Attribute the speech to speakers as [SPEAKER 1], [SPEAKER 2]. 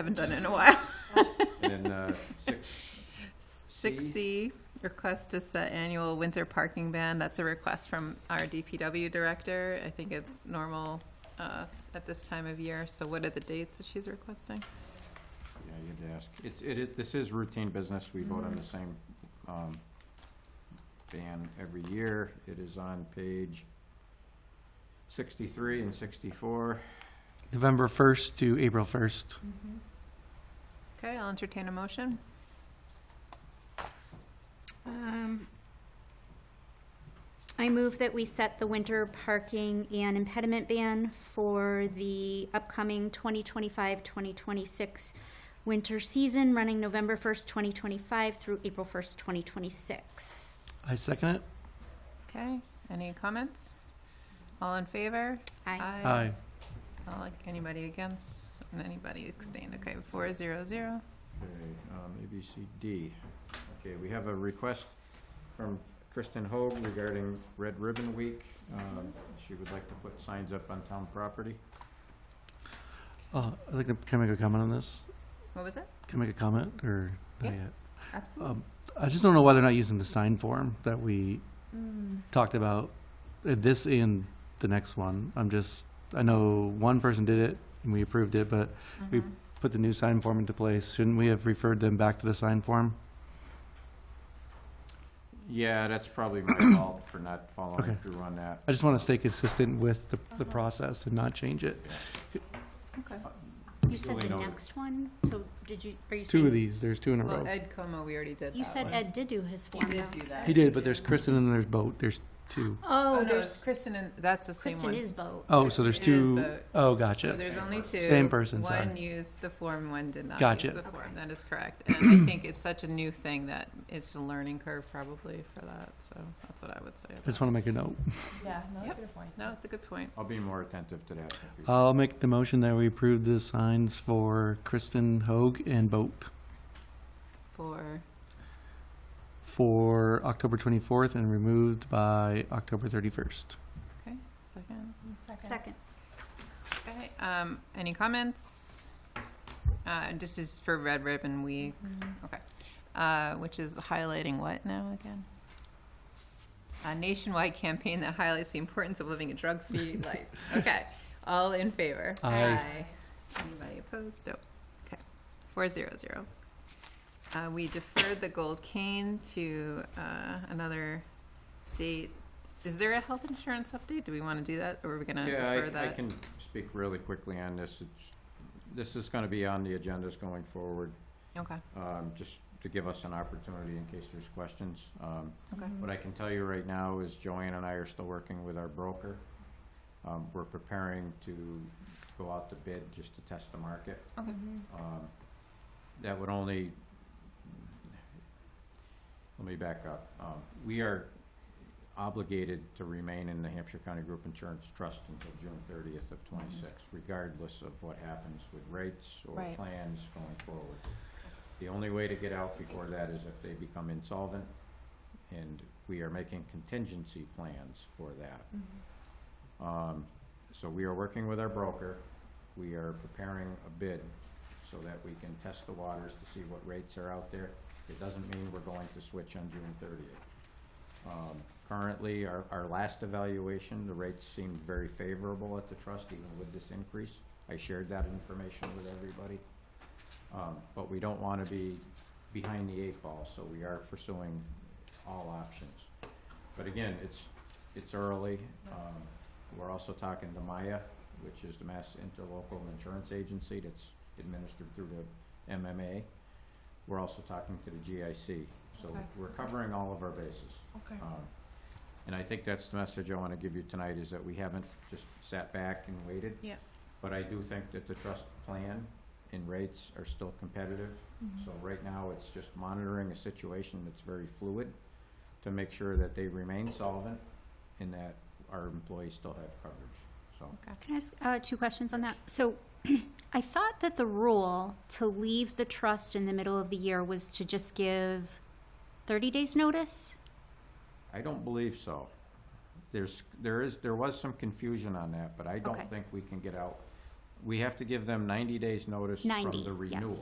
[SPEAKER 1] Haven't done it in a while.
[SPEAKER 2] And then uh, six.
[SPEAKER 1] Six C, request to set annual winter parking ban. That's a request from our DPW director. I think it's normal uh, at this time of year. So what are the dates that she's requesting?
[SPEAKER 2] Yeah, you had to ask. It's, it, is- this is routine business. We vote on the same, um, ban every year. It is on page sixty-three and sixty-four.
[SPEAKER 3] November 1st to April 1st.
[SPEAKER 1] Okay, I'll entertain a motion.
[SPEAKER 4] Um, I move that we set the winter parking and impediment ban for the upcoming 2025-2026 winter season, running November 1st, 2025 through April 1st, 2026.
[SPEAKER 3] I second it.
[SPEAKER 1] Okay, any comments? All in favor?
[SPEAKER 4] Aye.
[SPEAKER 3] Aye.
[SPEAKER 1] All like, anybody against and anybody abstained? Okay, four zero zero.
[SPEAKER 2] Okay, um, A, B, C, D. Okay, we have a request from Kristen Hoag regarding Red Ribbon Week. Um, she would like to put signs up on town property.
[SPEAKER 3] Oh, I'd like to, can I make a comment on this?
[SPEAKER 1] What was it?
[SPEAKER 3] Can I make a comment or? not
[SPEAKER 1] Yeah.
[SPEAKER 3] yet?
[SPEAKER 1] Absolutely.
[SPEAKER 3] Um, I just don't know why they're not using the sign form that we
[SPEAKER 1] Mm,
[SPEAKER 3] talked about, uh, this and the next one. I'm just, I know one person did it and we approved it, but we-
[SPEAKER 1] Mhm.
[SPEAKER 3] put the new sign form into place. Shouldn't we have referred them back to the sign form?
[SPEAKER 2] Yeah, that's probably my fault for not following
[SPEAKER 3] Okay.
[SPEAKER 2] through on that.
[SPEAKER 3] I just want to stay consistent with the,
[SPEAKER 1] Uh-huh.
[SPEAKER 3] the process and not change it.
[SPEAKER 1] Okay.
[SPEAKER 4] You said
[SPEAKER 2] Duly
[SPEAKER 4] the
[SPEAKER 2] noted.
[SPEAKER 4] next one, so did you, are you saying?
[SPEAKER 3] Two of these, there's two in a
[SPEAKER 1] Well,
[SPEAKER 3] row.
[SPEAKER 1] Ed Como, we already did that.
[SPEAKER 4] You said
[SPEAKER 1] one.
[SPEAKER 4] Ed did do his
[SPEAKER 1] He
[SPEAKER 4] form, though.
[SPEAKER 1] did do that.
[SPEAKER 3] He did, but there's Kristen and there's Boat. There's two.
[SPEAKER 1] Oh,
[SPEAKER 4] Oh,
[SPEAKER 1] no, it's
[SPEAKER 4] there's,
[SPEAKER 1] Kristen and, that's the same
[SPEAKER 4] Kristen
[SPEAKER 1] one.
[SPEAKER 4] is boat.
[SPEAKER 3] Oh, so there's
[SPEAKER 1] It is
[SPEAKER 3] two
[SPEAKER 1] Boat.
[SPEAKER 3] oh
[SPEAKER 1] So
[SPEAKER 3] gotcha.
[SPEAKER 1] there's only two.
[SPEAKER 3] Same person, sorry.
[SPEAKER 1] One used the form, one did not use
[SPEAKER 3] Gotcha.
[SPEAKER 1] the form. That is correct. And I think it's such a new thing that it's a learning curve probably for that, so that's what I would say.
[SPEAKER 3] I just want to make a note.
[SPEAKER 5] Yeah, no,
[SPEAKER 1] Yep.
[SPEAKER 5] that's a good point.
[SPEAKER 1] No, it's a good point.
[SPEAKER 2] I'll be more attentive to that. if you-
[SPEAKER 3] I'll make the motion that we approve the signs for Kristen Hoag and Boat
[SPEAKER 1] For,
[SPEAKER 3] for October 24th and removed by October 31st.
[SPEAKER 1] okay, second.
[SPEAKER 5] Second.
[SPEAKER 4] Second.
[SPEAKER 1] Okay, um, any comments? Uh, this is for Red Ribbon Week, okay. Uh, which is highlighting what now again? A nationwide campaign that highlights the importance of living a drug-free life. Okay, all in favor?
[SPEAKER 3] Aye.
[SPEAKER 1] Anybody opposed? No. Okay, four zero zero. Uh, we deferred the gold cane to, uh, another date. Is there a health insurance update? Do we wanna do that, or are we gonna
[SPEAKER 2] Yeah,
[SPEAKER 1] defer
[SPEAKER 2] I, I
[SPEAKER 1] that?
[SPEAKER 2] can speak really quickly on this. It's, this is gonna be on the agendas going forward,
[SPEAKER 1] Okay,
[SPEAKER 2] um, just to give us an opportunity in case there's questions. Um,
[SPEAKER 1] okay.
[SPEAKER 2] What I can tell you right now is Joanne and I are still working with our broker. Um, we're preparing to go out to bid just to test the market.
[SPEAKER 1] Okay.
[SPEAKER 2] Um, That would only, let me back up. Um, We are obligated to remain in the Hampshire County Group Insurance Trust until June thirtieth of twenty-six, regardless of what happens with rates or
[SPEAKER 5] Right.
[SPEAKER 2] plans going forward. The only way to get out before that is if they become insolvent, and we are making contingency plans for that. Um, So we are working with our broker. We are preparing a bid so that we can test the waters to see what rates are out there. It doesn't mean we're going to switch on June thirtieth. Um, Currently, our, our last evaluation, the rates seemed very favorable at the trust, even with this increase. I shared that information with everybody. Um, But we don't want to be behind the eight ball, so we are pursuing all options. But again, it's, it's early. Um, We're also talking to Maya, which is the Mass Interlocal Insurance Agency that's administered through the MMA. We're also talking to the GIC, so
[SPEAKER 1] Okay.
[SPEAKER 2] we're covering all of our bases.
[SPEAKER 5] Okay.
[SPEAKER 2] Um, And I think that's the message I want to give you tonight, is that we haven't just sat back and waited.
[SPEAKER 1] Yeah.
[SPEAKER 2] But I do think that the trust plan and rates are still competitive.
[SPEAKER 1] Mm-hmm.
[SPEAKER 2] So right now, it's just monitoring a situation that's very fluid to make sure that they remain solvent and that our employees still have coverage, so.
[SPEAKER 4] Can I ask uh, two questions on that? So I thought that the rule to leave the trust in the middle of the year was to just give 30 days' notice?
[SPEAKER 2] I don't believe so. There's, there is, there was some confusion on that, but I
[SPEAKER 4] Okay.
[SPEAKER 2] don't think we can get out we have to give them ninety days notice from
[SPEAKER 4] 90,
[SPEAKER 2] the
[SPEAKER 4] yes.
[SPEAKER 2] renewal.